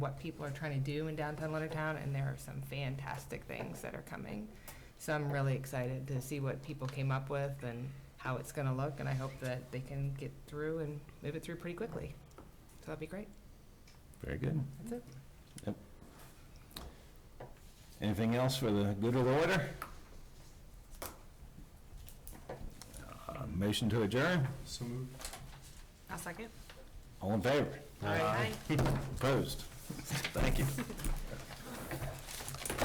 what people are trying to do in downtown Leonardtown, and there are some fantastic things that are coming. So I'm really excited to see what people came up with and how it's going to look, and I hope that they can get through and move it through pretty quickly. So that'd be great. Very good. That's it. Anything else for the good of the order? Uh, Motion to adjourn? So moved. I'll second. All in favor? All right. Opposed? Thank you.